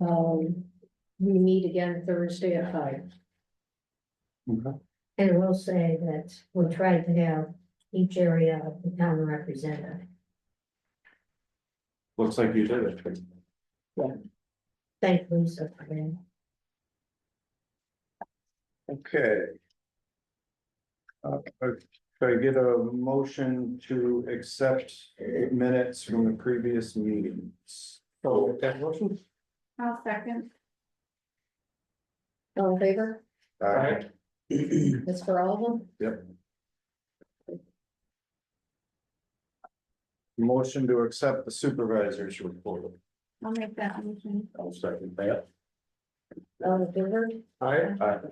Um, we meet again Thursday at five. Okay. And I will say that we'll try to have each area of the town represented. Looks like you did it. Thank Lisa for that. Okay. Uh, could I get a motion to accept minutes from the previous meetings? So that motion? I'll second. All in favor? Alright. That's for all of them? Motion to accept the supervisor's report. I'll make that motion. I'll second that. All in favor? Alright.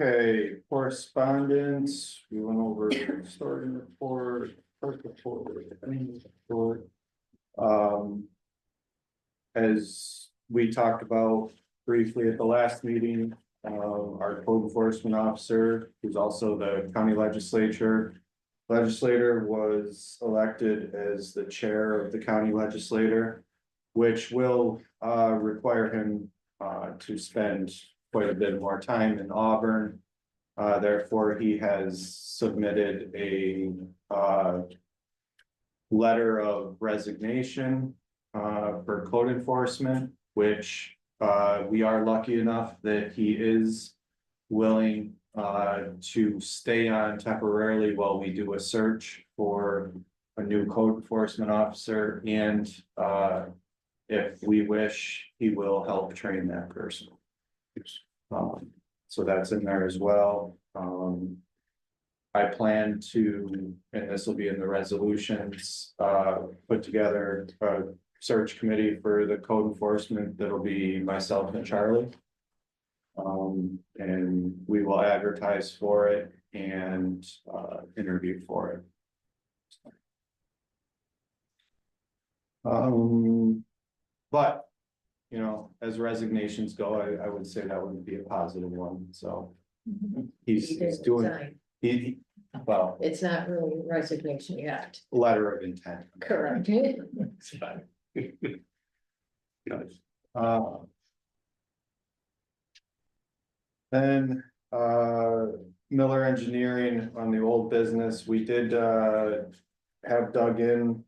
Okay, correspondence, we went over starting report, first report, ending report. Um. As we talked about briefly at the last meeting, uh, our code enforcement officer, who's also the county legislature. Legislator was elected as the chair of the county legislator. Which will uh require him uh to spend quite a bit more time in Auburn. Uh, therefore, he has submitted a uh. Letter of resignation uh for code enforcement, which uh we are lucky enough that he is. Willing uh to stay on temporarily while we do a search for a new code enforcement officer and uh. If we wish, he will help train that person. Um, so that's in there as well, um. I plan to, and this will be in the resolutions, uh, put together a search committee for the code enforcement, that'll be myself and Charlie. Um, and we will advertise for it and, uh, interview for it. Um, but, you know, as resignations go, I, I would say that would be a positive one, so. He's, You did he's doing, resign. he, he- well, It's not really resignation yet. letter of intent. Correct. Uh, Then, uh, Miller Engineering on the old business, we did, uh, have dug in.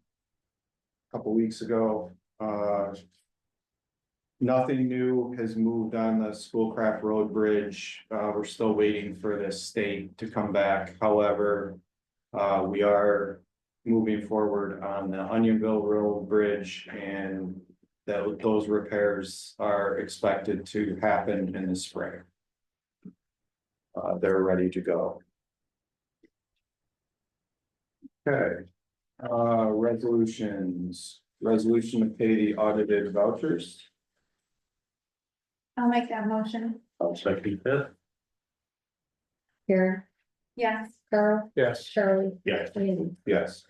a Couple weeks ago, uh. Nothing new has moved on the Schoolcraft Road Bridge, uh, we're still waiting for the state to come back, however. Uh, we are moving forward on the Onionville Road Bridge and that those repairs are expected to happen in the spring. Uh, they're ready to go. Okay, uh, resolutions, resolution to pay the audited vouchers. I'll make that motion. I'll second that. Karen, Yes. Carl, Yes. Charlie, Yes. Andy. Yes.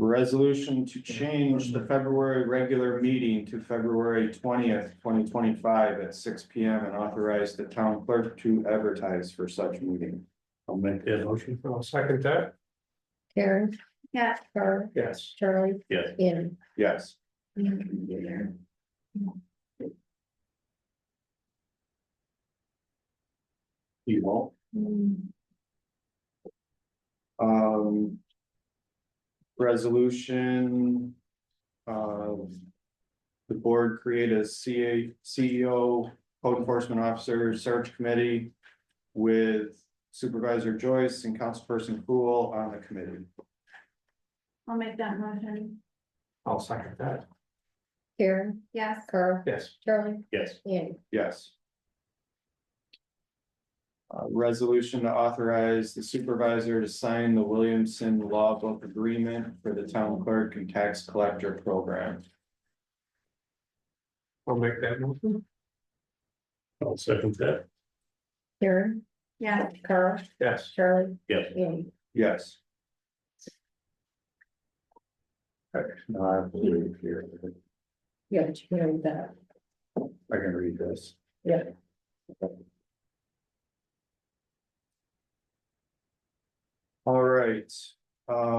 Resolution to change the February regular meeting to February twentieth, twenty twenty-five at six P M. And authorize the town clerk to advertise for such meeting. I'll make that motion. I'll second that. Karen, Yes. Carl, Yes. Charlie. Yes. Andy. Yes. You won't? Hmm. Um. Resolution. of The board create a CA, CEO, code enforcement officer search committee. With Supervisor Joyce and Councilperson Cool on the committee. I'll make that motion. I'll second that. Karen, Yes. Carl, Yes. Charlie, Yes. Andy. Yes. Uh, resolution to authorize the supervisor to sign the Williamson Law Book Agreement for the town clerk and tax collector program. I'll make that motion. I'll second that, Karen, Yes. Carl, yes. Charlie. Yes. Andy. Yes. Okay, now I believe here, Yeah, but you can read that. I can read this. Yeah. All right, uh,